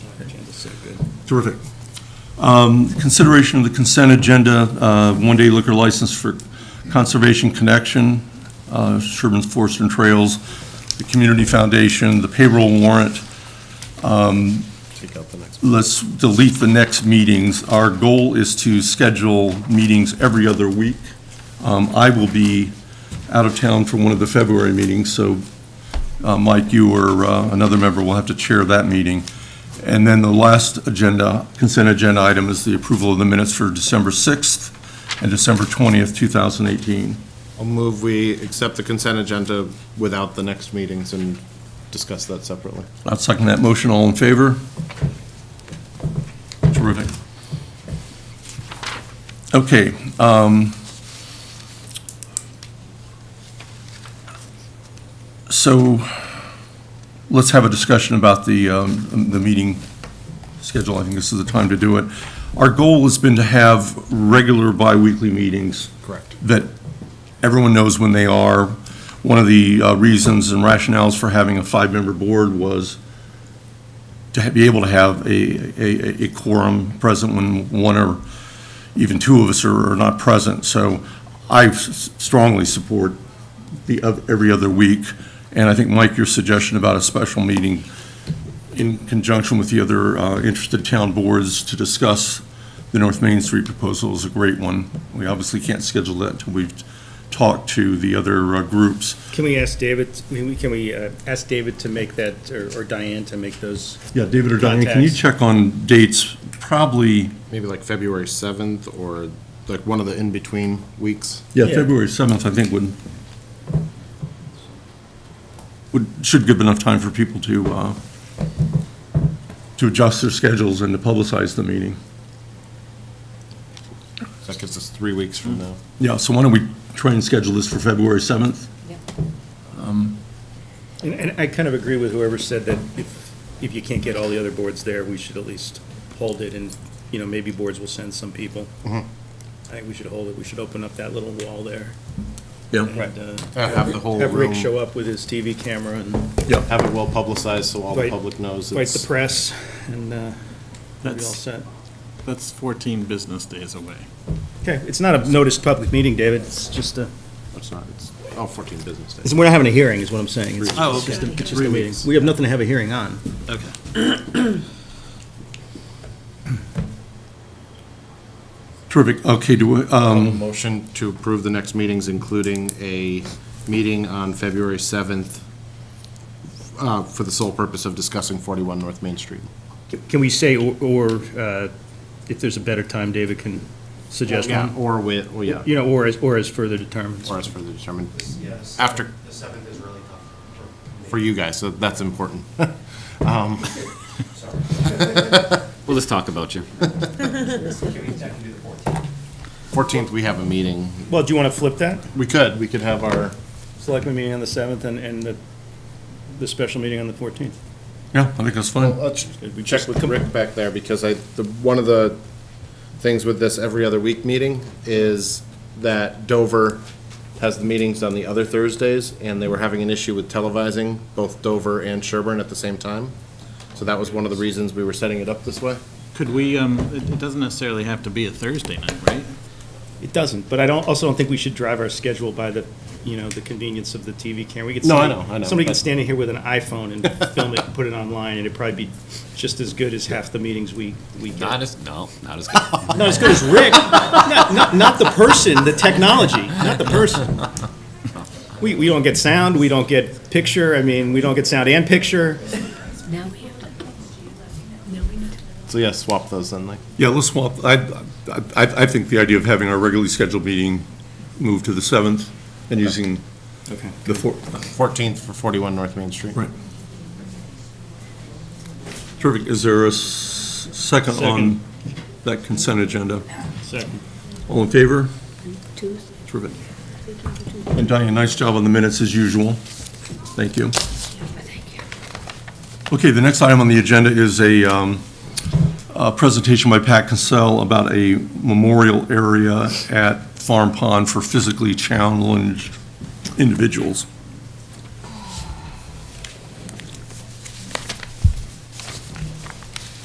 So good. Terrific. Um, Consideration of the consent agenda, uh, one-day liquor license for Conservation Connection, uh, Sherman's Forest and Trails, the Community Foundation, the payroll warrant. Um, Take out the next. Let's delete the next meetings. Our goal is to schedule meetings every other week. Um, I will be out of town for one of the February meetings, so uh, Mike, you or uh, another member will have to chair that meeting. And then the last agenda, consent agenda item is the approval of the minutes for December 6th and December 20th, 2018. I'll move we accept the consent agenda without the next meetings and discuss that separately. I'll second that motion. All in favor? Terrific. Okay. um, So let's have a discussion about the, um, the meeting schedule. I think this is the time to do it. Our goal has been to have regular biweekly meetings Correct. that everyone knows when they are. One of the uh, reasons and rationales for having a five-member board was to ha- be able to have a, a, a quorum present when one or even two of us are, are not present. So I s- strongly support the, of every other week. And I think, Mike, your suggestion about a special meeting in conjunction with the other uh, interested town boards to discuss the North Main Street proposal is a great one. We obviously can't schedule that until we've talked to the other uh, groups. Can we ask David, I mean, we- can we uh, ask David to make that, or or Diane to make those? Yeah, David or Diane, can you Contacts. check on dates? Probably, Maybe like February 7th or like one of the in-between weeks. yeah, Yeah. February 7th, I think, would, would, should give enough time for people to, uh, to adjust their schedules and to publicize the meeting. That gives us three weeks from now. Yeah, so why don't we try and schedule this for February 7th? And- And I kind of agree with whoever said that if, if you can't get all the other boards there, we should at least hold it, and, you know, maybe boards will send some people. Mm-hmm. I think we should hold it, we should open up that little wall there. Yeah. and, uh, Yeah, have the whole Have Rick room. show up with his TV camera and Have it well publicized so all the Right. public knows. invite the it's- press, and uh, we'll be all That's- set. That's 14 business days away. Okay, it's not a noticed public meeting, David, it's just a, It's not, it's, oh, 14 business days. it's- we're not having a hearing, is what I'm saying. It's- Oh, it's just a- okay. it's just a Three meeting. weeks. We have nothing to have a hearing on. Okay. Terrific. Okay, do, we- um, Motion to approve the next meetings, including a meeting on February 7th uh, for the sole purpose of discussing 41 North Main Street. Can we say, or- or, uh, if there's a better time, David can suggest Yeah, one? Or with, well, yeah, You know, or as, or as further determined. or as further determined Yes. after, The seventh is really tough for for me. you guys, so that's important. Um, Sorry. We'll just talk about you. Can we, I can do the fourteenth. 14th, we have a meeting. Well, do you want to flip that? We could, we could have our, Selectmen meeting on the 7th and, and the, the special meeting on the 14th. yeah, I think that's fine. let's we check just with Rick back there, because I, the, one of the things with this every other week meeting is that Dover has the meetings on the other Thursdays, and they were having an issue with televising both Dover and Sherburne at the same time. So that was one of the reasons we were setting it up this way. Could we, um, it it doesn't necessarily have to be a Thursday night, right? It doesn't, but I don't, also don't think we should drive our schedule by the, you know, the convenience of the TV camera. We could No, I somebody- know, I know, Somebody could but- stand in here with an iPhone and film it, and put it online, and it'd probably be just as good as half the meetings we, we get. Not as, no, not as good. Not as good as Rick. Not, not, not the person, the technology, not the person. We, we don't get sound, we don't get picture, I mean, we don't get sound and picture. Now we have to. Now we need to. So yeah, swap those in, like, Yeah, let's swap, I, I, I think the idea of having our regularly scheduled meeting moved to the 7th and using Okay. the 4th. 14th for 41 North Main Street. Right. Terrific. Is there a s- second on that consent agenda? Second. All in favor? Two, Terrific. And Diane, nice job on the minutes as usual. Thank you. thank you. Okay, the next item on the agenda is a, um, a presentation by Pat Cassell about a memorial area at Farm Pond for physically challenged individuals.